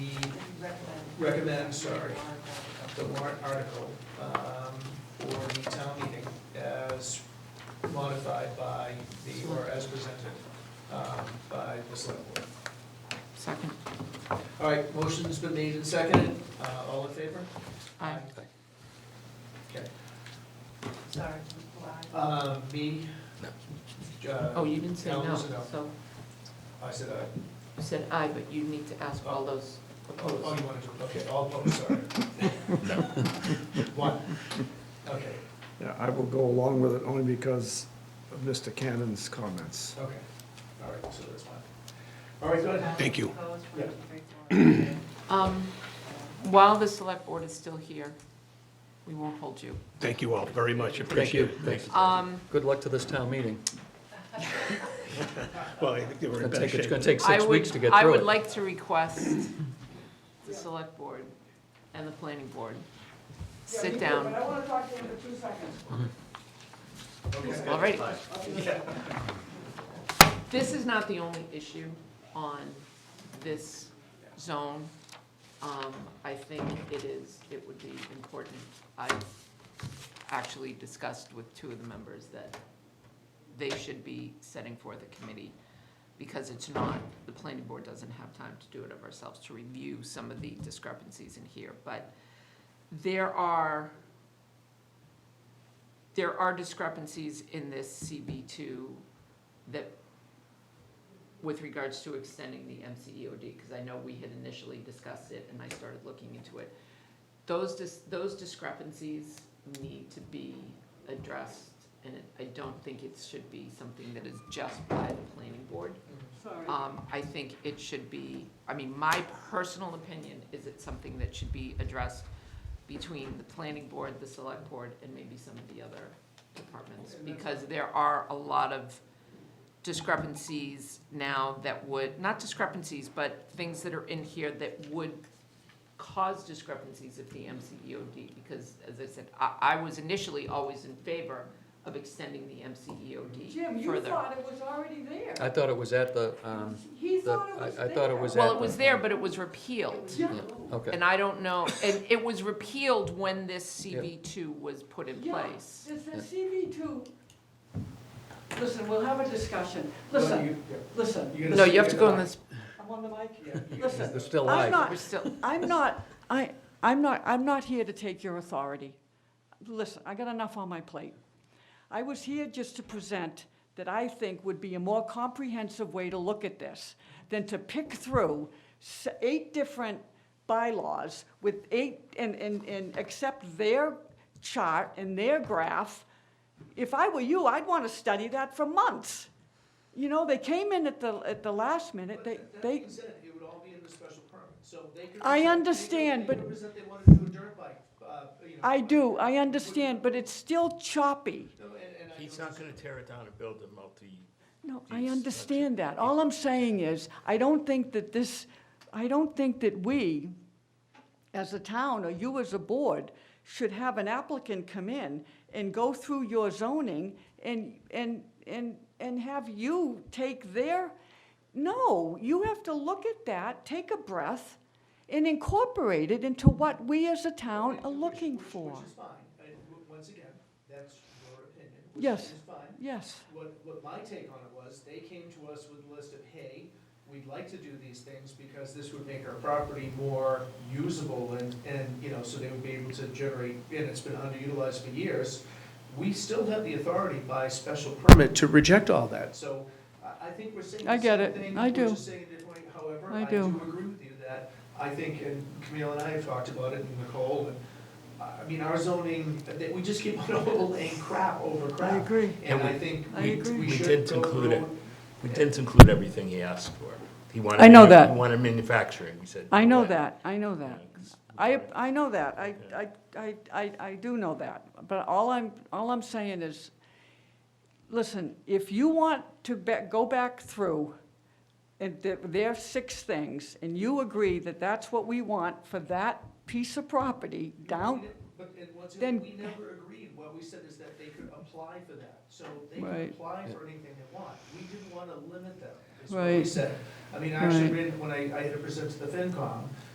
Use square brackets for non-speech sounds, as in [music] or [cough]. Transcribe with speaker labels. Speaker 1: recommend, I'm sorry, the warrant article um, for the town meeting as modified by the, or as presented um, by the select board.
Speaker 2: Second.
Speaker 1: All right, motion's been made and seconded. Uh, All in favor?
Speaker 2: Aye.
Speaker 1: Okay.
Speaker 3: Sorry.
Speaker 1: Uh, Me?
Speaker 4: No.
Speaker 1: Uh,
Speaker 2: Oh, you didn't say
Speaker 1: Alan
Speaker 2: no,
Speaker 1: was a no.
Speaker 2: so
Speaker 1: I said aye.
Speaker 2: you said aye, but you need to ask all those
Speaker 1: Oh, oh,
Speaker 2: opposed.
Speaker 1: you wanted to, okay, all opposed, sorry. [laughs] One. Okay,
Speaker 5: Yeah, I will go along with it only because of Mr. Cannon's comments.
Speaker 1: okay. All right, so that's fine. All right, go ahead.
Speaker 4: Thank you.
Speaker 2: Um, While the select board is still here, we won't hold you.
Speaker 4: Thank you all very much,
Speaker 6: Thank you.
Speaker 4: appreciate it.
Speaker 6: Thank you.
Speaker 2: Um,
Speaker 6: Good luck to this town meeting.
Speaker 4: Well, I think they were
Speaker 6: It's gonna
Speaker 4: in better
Speaker 6: take, it's
Speaker 4: shape.
Speaker 6: gonna take
Speaker 2: I
Speaker 6: six
Speaker 2: would-
Speaker 6: weeks to get
Speaker 2: I
Speaker 6: through
Speaker 2: would
Speaker 6: it.
Speaker 2: like to request the select board and the planning board sit down.
Speaker 3: But I want to talk to him for two seconds.
Speaker 1: Okay.
Speaker 2: All right. This is not the only issue on this zone. Um, I think it is, it would be important. I actually discussed with two of the members that they should be setting forth a committee because it's not, the planning board doesn't have time to do it of ourselves to review some of the discrepancies in here. But there are there are discrepancies in this CB two that, with regards to extending the E MCEOD, because I know we had initially discussed it and I started looking into it. Those dis- those discrepancies need to be addressed, and it- I don't think it should be something that is just by the planning board.
Speaker 3: Sorry.
Speaker 2: Um, I think it should be, I mean, my personal opinion is it's something that should be addressed between the planning board, the select board, and maybe some of the other departments. Because there are a lot of discrepancies now that would, not discrepancies, but things that are in here that would cause discrepancies if the MCEOD, because as I said, I, I was initially always in favor of extending the MCEOD further.
Speaker 3: Jim, you thought it was already there.
Speaker 6: I thought it was at the, um,
Speaker 3: He
Speaker 6: the-
Speaker 3: thought it was
Speaker 6: I- I
Speaker 3: there.
Speaker 6: thought it was at-
Speaker 2: Well, it was there, but it was repealed.
Speaker 3: Yeah.
Speaker 6: okay.
Speaker 2: And I don't know, and it was repealed when this CB two was put in
Speaker 3: Yeah.
Speaker 2: place.
Speaker 3: Does the CV two, listen, we'll have a discussion. Listen,
Speaker 1: You- yeah,
Speaker 3: listen,
Speaker 1: you're gonna
Speaker 2: No, you have
Speaker 1: speak
Speaker 2: to
Speaker 1: in
Speaker 2: go
Speaker 1: the
Speaker 2: on
Speaker 1: mic.
Speaker 2: this,
Speaker 3: I'm on the mic.
Speaker 1: Yeah, you-
Speaker 3: Listen,
Speaker 6: They're still
Speaker 3: I'm
Speaker 6: live.
Speaker 3: not-
Speaker 2: we're still,
Speaker 3: I'm not, I, I'm not, I'm not here to take your authority. Listen, I got enough on my plate. I was here just to present that I think would be a more comprehensive way to look at this than to pick through s- eight different bylaws with eight, and, and, and accept their chart and their graph. If I were you, I'd want to study that for months. You know, they came in at the, at the last minute,
Speaker 1: But
Speaker 3: they,
Speaker 1: that
Speaker 3: they.
Speaker 1: being said, it would all be in the special permit, so they could. present-
Speaker 3: I
Speaker 1: they could-
Speaker 3: understand,
Speaker 1: They
Speaker 3: but-
Speaker 1: could present they wanted to do a dirt bike, uh, you know.
Speaker 3: I do, I understand, but it's still choppy.
Speaker 1: No, and, and I.
Speaker 4: He's
Speaker 1: don't
Speaker 4: not gonna tear it down and build a multi,
Speaker 3: No,
Speaker 4: Yes,
Speaker 3: I
Speaker 4: that's it.
Speaker 3: understand that. All I'm saying is, I don't think that this, I don't think that we, as a town, or you as a board, should have an applicant come in and go through your zoning and, and, and, and have you take their, no, you have to look at that, take a breath, and incorporate it into what we as a town are
Speaker 1: Which-
Speaker 3: looking
Speaker 1: which-
Speaker 3: for.
Speaker 1: Which is fine, I- w- once again, that's your opinion, which
Speaker 3: Yes.
Speaker 1: is fine.
Speaker 3: Yes,
Speaker 1: What, what my take on it was, they came to us with a list of, hey, we'd like to do these things because this would make our property more usable and, and, you know, so they would be able to generate, and it's been underutilized for years. We still have the authority by special permit to reject all that, so I, I think we're saying the
Speaker 3: I get
Speaker 1: same
Speaker 3: it.
Speaker 1: thing,
Speaker 3: I
Speaker 1: we're
Speaker 3: do.
Speaker 1: just saying it differently. However,
Speaker 3: I
Speaker 1: I do
Speaker 3: do.
Speaker 1: agree with you that, I think, and Camille and I have talked about it, and Nicole, and, I mean, our zoning, that we just keep on [laughs] overlaying crap over crap.
Speaker 3: I agree.
Speaker 1: And
Speaker 4: And
Speaker 1: I think
Speaker 3: I
Speaker 1: we,
Speaker 3: agree.
Speaker 1: we
Speaker 4: We
Speaker 1: should
Speaker 4: did
Speaker 1: go
Speaker 4: conclude it.
Speaker 1: through-
Speaker 4: we didn't include everything he asked for. He wanted.
Speaker 3: I know
Speaker 4: manu-
Speaker 3: that.
Speaker 4: He wanted manufacturing, we said.
Speaker 3: I know
Speaker 4: no.
Speaker 3: that, I know that.
Speaker 4: Yeah, 'cause we
Speaker 3: I,
Speaker 4: wanted-
Speaker 3: I know that, I, I,
Speaker 4: Okay.
Speaker 3: I, I I do know that, but all I'm, all I'm saying is, listen, if you want to be- go back through, and there- there are six things, and you agree that that's what we want for that piece of property down,
Speaker 1: But, and once, again,
Speaker 3: Then-
Speaker 1: we never agreed, what we said is that they could apply for that, so they
Speaker 3: Right.
Speaker 1: could apply for anything they want, we didn't wanna limit them, is what we
Speaker 3: Right.
Speaker 1: said. I mean, I actually
Speaker 3: Right.
Speaker 1: read, when I, I had it presented to the FinCom,